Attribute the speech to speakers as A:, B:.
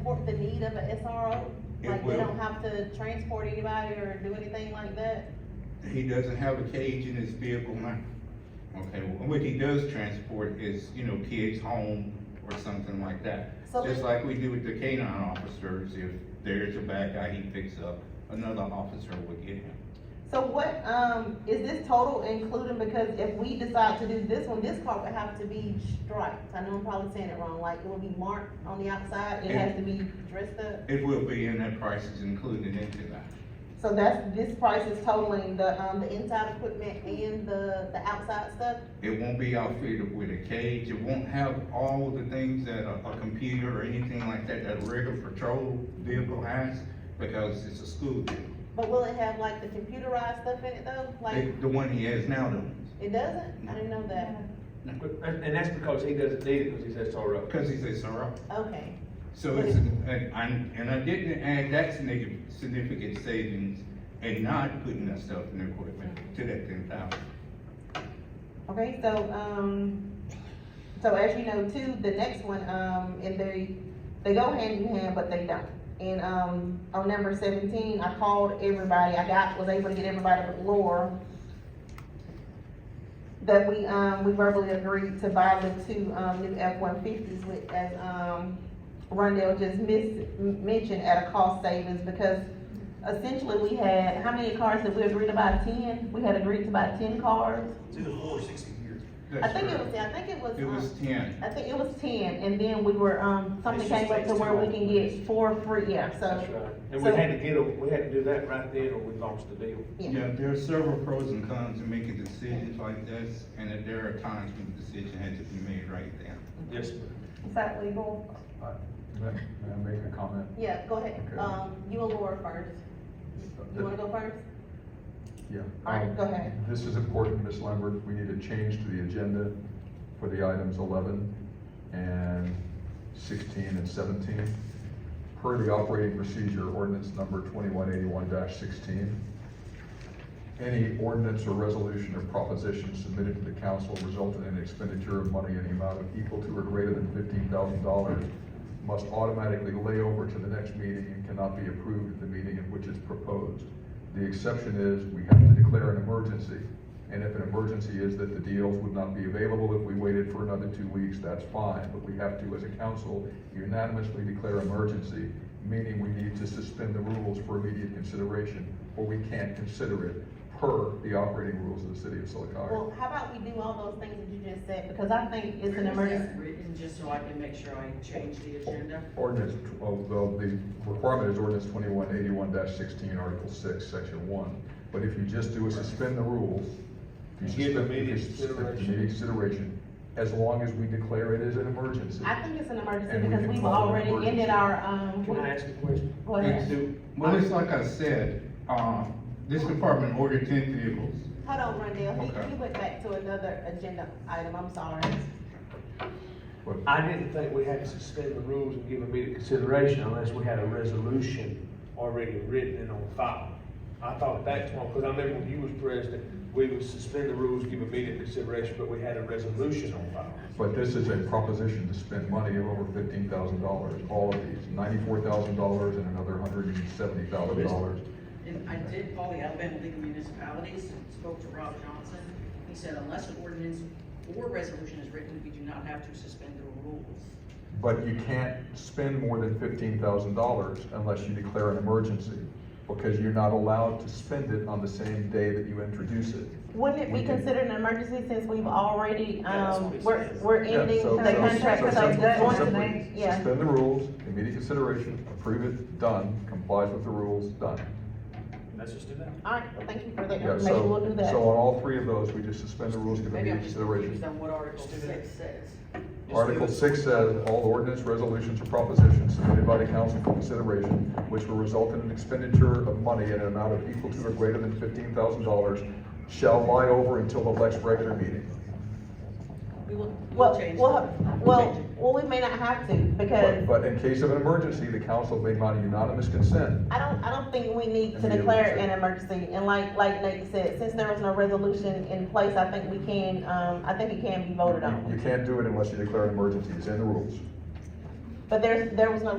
A: end up a SRO?
B: It
A: Like, they
B: will.
A: don't have to transport anybody or do anything like that?
B: He doesn't have a cage in his vehicle now. Okay, well, what he does transport is, you know, kids home or something like that.
A: So
B: Just
A: let-
B: like we do with the canine officers, if there's a bad guy he picks up, another officer would get him.
A: So what, um, is this total including, because if we decide to do this one, this car would have to be striped, I know I'm probably saying it wrong, like, it would be marked on the outside, it
B: Yeah.
A: has to be dressed up.
B: It will be, and that price is included into that.
A: So that's, this price is totaling the, um, the inside equipment and the, the outside stuff?
B: It won't be outfitted with a cage, it won't have all the things that a, a computer or anything like that, that a regular patrol vehicle has, because it's a school vehicle.
A: But will it have like the computerized stuff in it though? Like,
B: The, the one he has now does
A: it doesn't? I didn't know that.
C: But- And and that's because he doesn't need it, because he says tow rope.
B: because he's a SRO.
A: Okay,
B: So it's, and, I'm- and I didn't add that significant, significant savings and not putting that stuff in equipment to that ten thousand.
A: okay, so, um, so as you know too, the next one, um, and they, they go hand in hand, but they don't. And, um, on number seventeen, I called everybody, I got, was able to get everybody but Laura. That we, um, we verbally agreed to buy the two, um, new F one fifties with, as, um, Rondell just mis- m- mentioned at a cost savings because essentially we had, how many cars did we agree to buy? Ten? We had agreed to buy ten cars.
D: Two to four, sixty a year.
A: I think it was, I think it was,
B: It was
A: um,
B: ten,
A: I think it was ten, and then we were, um, something
D: It's just
A: came up to
D: takes
A: where
D: two
A: we can get four free, yeah,
C: That's
A: so,
C: right. And we
A: so-
C: had to get, a- we had to do that right then, or we lost the deal.
A: yeah.
B: yeah, there are several pros and cons to making decisions like this, and that there are times when the decision had to be made right then.
C: Yes, sir.
A: Is that legal?
E: May may I make a comment?
A: Yeah, go ahead,
E: Okay.
A: um, you and Laura first. You wanna go first?
E: Yeah.
A: All right,
E: Um,
A: go ahead.
E: This is important, Ms. Lambert. We need a change to the agenda for the items eleven and sixteen and seventeen. Per the operating procedure ordinance number twenty-one eighty-one sixteen. Any ordinance or resolution or proposition submitted to the council resulting in expenditure of money in the amount of equal to or greater than fifteen thousand dollars must automatically lay over to the next meeting and cannot be approved at the meeting in which it's proposed. The exception is, we have to declare an emergency, and if an emergency is that the deals would not be available if we waited for another two weeks, that's fine, but we have to, as a council, unanimously declare emergency, meaning we need to suspend the rules for immediate consideration, or we can't consider it per the operating rules of the city of Solocaga.
A: Well, how about we do all those things that you just said, because I think it's an emergency.
F: Written, just so I can make sure I change the agenda.
E: Ordinance, tw- oh, well, the requirement is ordinance twenty-one eighty-one sixteen, article six, section one. But if you just do a suspend the rules. if you
C: Give
E: suspend-
C: immediate
E: if you suspend the
C: consideration.
E: immediate Consideration, as long as we declare it as an emergency.
A: I think it's an
E: And
A: emergency
E: we
A: because
E: can
A: we've
E: call it an
A: already ended
E: emergency.
A: our, um,
C: Can I ask a question?
A: go ahead.
C: Do-
B: Well, it's like I said, um, this department ordered ten vehicles.
A: Hold on, Rondell,
B: Okay.
A: he, he went back to another agenda item, I'm sorry.
E: But
C: I didn't think we had to suspend the rules and give immediate consideration unless we had a resolution already written and on file. I thought that's one, because I remember when you was president, we would suspend the rules, give immediate consideration, but we had a resolution on file.
E: But this is a proposition to spend money of over fifteen thousand dollars, all of these, ninety-four thousand dollars and another hundred and seventy thousand dollars.
F: And I did call the Alabama League of Municipalities and spoke to Rob Johnson. He said unless an ordinance or resolution is written, we do not have to suspend the rules.
E: But you can't spend more than fifteen thousand dollars unless you declare an emergency, because you're not allowed to spend it on the same day that you introduce it.
A: Wouldn't it be
E: We can-
A: considered an emergency since we've already,
D: Yeah, that's what
A: um,
D: it
A: we're,
D: says.
A: we're
E: Yeah,
A: ending
E: so-
A: the
E: so-
A: contract, so
E: so
A: it's
E: simply-
A: going to
E: simply
A: be, yeah.
E: Suspend the rules, immediate consideration, approve it, done, complies with the rules, done.
C: Let's just do that.
A: Alright, well, thank you for that
E: Yeah,
A: information, we'll do
E: so,
A: that.
E: so uh, on all three of those, we just suspend the rules, give
F: Maybe
E: immediate
F: I'm just
E: consideration.
F: confused on what Article Six says.
E: Article six says, all ordinance, resolutions, or propositions submitted by the council for consideration, which will result in an expenditure of money in an amount of equal to or greater than fifteen thousand dollars, shall lie over until the next regular meeting.
F: We will, we'll
A: Well,
F: change.
A: well,
F: that. We'll
A: well,
F: change it.
A: well, we may not have to,
E: But,
A: because
E: but in case of an emergency, the council may by unanimous consent.
A: I don't, I don't think we need to
E: Immediate
A: declare an
E: consent.
A: emergency, and like, like Nate said, since there was no resolution in place, I think we can, um, I think it can be voted
E: You
A: on.
E: can't do it unless you declare an emergency, it's in the rules.
A: But there's, there was no